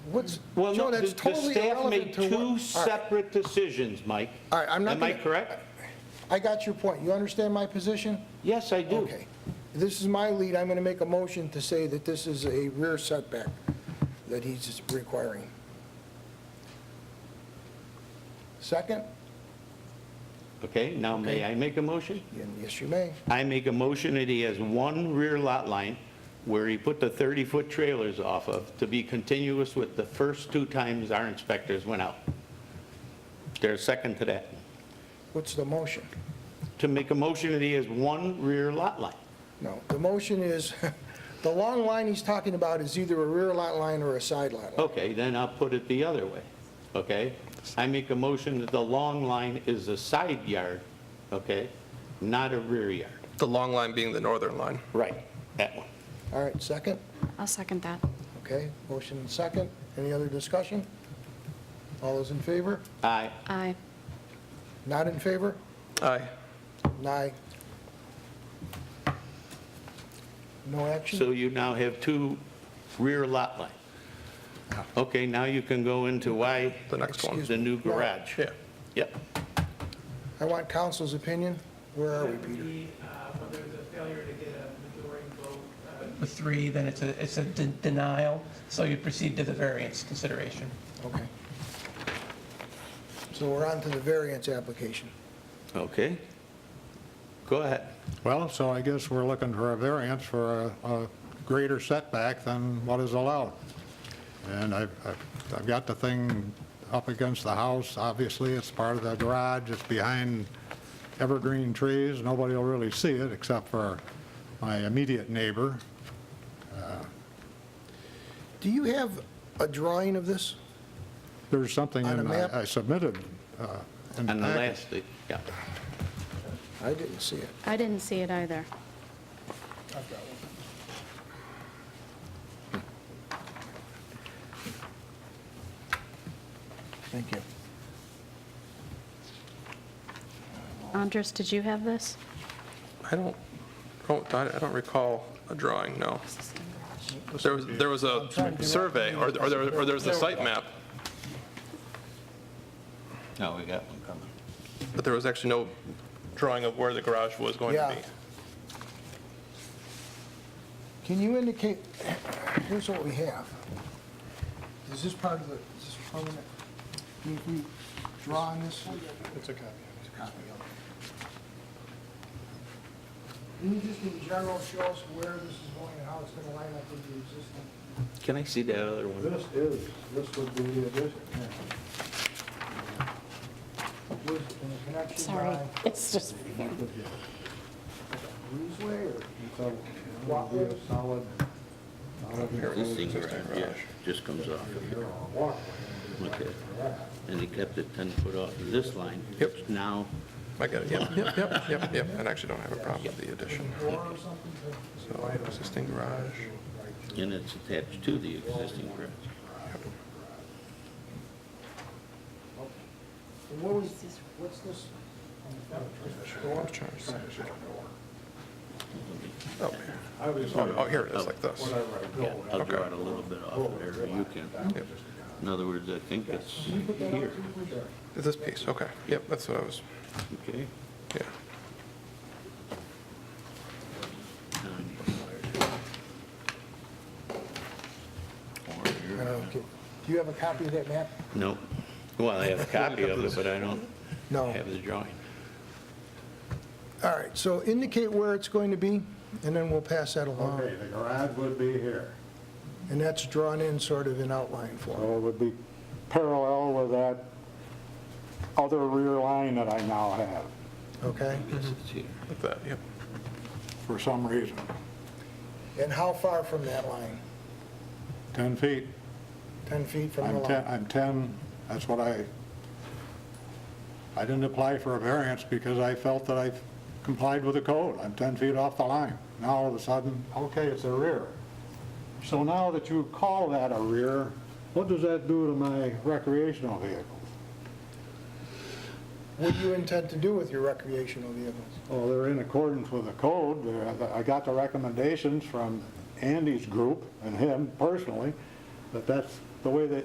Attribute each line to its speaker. Speaker 1: what's,
Speaker 2: Well,
Speaker 1: Joe,
Speaker 2: no, the
Speaker 1: that's
Speaker 2: the
Speaker 1: totally
Speaker 2: staff
Speaker 1: irrelevant
Speaker 2: made
Speaker 1: to what.
Speaker 2: two
Speaker 1: All right,
Speaker 2: separate decisions, Mike.
Speaker 1: All right, I'm not
Speaker 2: Am I
Speaker 1: gonna-
Speaker 2: correct?
Speaker 1: I got your point. You understand my position?
Speaker 2: Yes, I do.
Speaker 1: Okay. This is my lead. I'm going to make a motion to say that this is a rear setback that he's requiring. Second?
Speaker 2: Okay, now may I make a motion?
Speaker 1: Yes, you may.
Speaker 2: I make a motion that he has one rear lot line where he put the 30-foot trailers off of to be continuous with the first two times our inspectors went out. There's a second to that.
Speaker 1: What's the motion?
Speaker 2: To make a motion that he has one rear lot line.
Speaker 1: No, the motion is, the long line he's talking about is either a rear lot line or a side lot line.
Speaker 2: Okay, then I'll put it the other way, okay? I make a motion that the long line is a side yard, okay, not a rear yard.
Speaker 3: The long line being the northern line.
Speaker 2: Right. That one.
Speaker 1: All right, second?
Speaker 4: I'll second that.
Speaker 1: Okay, motion and second. Any other discussion? All those in favor?
Speaker 2: Aye.
Speaker 4: Aye.
Speaker 1: Not in favor?
Speaker 3: Aye.
Speaker 1: Nay. No action?
Speaker 2: So you now have two rear lot lines. Okay, now you can go into why
Speaker 3: The next one.
Speaker 2: the new garage.
Speaker 3: Yeah.
Speaker 2: Yep.
Speaker 1: I want council's opinion. Where are we, Peter?
Speaker 5: Whether it's Uh, a failure to get a majority vote. uh, With three, then it's a, it's a de- denial, so you proceed to the variance consideration.
Speaker 1: Okay. So we're on to the variance application.
Speaker 2: Okay. Go ahead.
Speaker 6: Well, so I guess we're looking for a variance for a, a greater setback than what is allowed. And I've, I've- I've got the thing up against the house, obviously, it's part of the garage, it's behind evergreen trees, nobody will really see it except for my immediate neighbor.
Speaker 1: Do you have a drawing of this?
Speaker 6: There's something
Speaker 1: On a
Speaker 6: in,
Speaker 1: map?
Speaker 6: I I submitted. uh, in
Speaker 2: On the
Speaker 6: packet.
Speaker 2: last, yeah.
Speaker 1: I didn't see it.
Speaker 4: I didn't see it either.
Speaker 1: Thank you.
Speaker 4: Andres, did you have this?
Speaker 3: I don't, I don't- I don't recall a drawing, no. There was, there was a survey, or or there or there was a site map,
Speaker 2: No, Oh, we got one coming.
Speaker 3: but there was actually no drawing of where the garage was going to
Speaker 1: Yeah.
Speaker 3: be.
Speaker 1: Can you indicate, here's what we have. Is this part of the, is this permanent? Can you draw on this? It's a copy. It's a copy, okay. Can you just in general show us where this is going and how it's going to line up with the existing?
Speaker 2: Can I see that other one?
Speaker 7: This is, this would be the addition.
Speaker 1: Was it in the connection
Speaker 4: Sorry,
Speaker 1: by
Speaker 4: it's just,
Speaker 1: breezeway or?
Speaker 7: So it would be a solid, solid
Speaker 2: This thing right here just comes off.
Speaker 7: walkway.
Speaker 2: Okay. And he kept it 10 foot off of this line.
Speaker 3: Yep.
Speaker 2: Now,
Speaker 3: I got it, yep, yep, yep, yep, yep. And I actually don't have a problem with the addition. So existing garage.
Speaker 2: and it's attached to the existing garage.
Speaker 1: And what was, what's this? on the front?
Speaker 3: Oh, oh, here it is, like this.
Speaker 2: Yeah, I'll
Speaker 3: Okay.
Speaker 2: draw it a little bit off of there, you can.
Speaker 3: Yep.
Speaker 2: In other words, I think it's here,
Speaker 3: This piece, okay. Yep, that's what I was,
Speaker 2: okay?
Speaker 3: yeah.
Speaker 2: Um,
Speaker 1: I don't know, okay. Do you have a copy of that map?
Speaker 2: No, well, I have a copy of it, but I don't
Speaker 1: No.
Speaker 2: have the drawing.
Speaker 1: All right, so indicate where it's going to be, and then we'll pass that along.
Speaker 7: Okay, the garage would be here.
Speaker 1: And that's drawn in sort of in outline form.
Speaker 7: So it would be parallel with that other rear line that I now have,
Speaker 1: Okay?
Speaker 2: It's here.
Speaker 3: Like that, yep.
Speaker 7: for some reason.
Speaker 2: Mm-hmm.
Speaker 1: And how far from that line?
Speaker 6: 10 feet.
Speaker 1: 10 feet from the
Speaker 6: I'm 10,
Speaker 1: line?
Speaker 6: I'm 10, that's what I, I didn't apply for a variance because I felt that I complied with the code. I'm 10 feet off the line. Now all of a sudden, okay, it's a rear. So now that you call that a rear, what does that do to my recreational vehicles?
Speaker 1: What do you intend to do with your recreational vehicles?
Speaker 6: Well, they're in accordance with the code. They're- I got the recommendations from Andy's group and him personally, that that's the way they,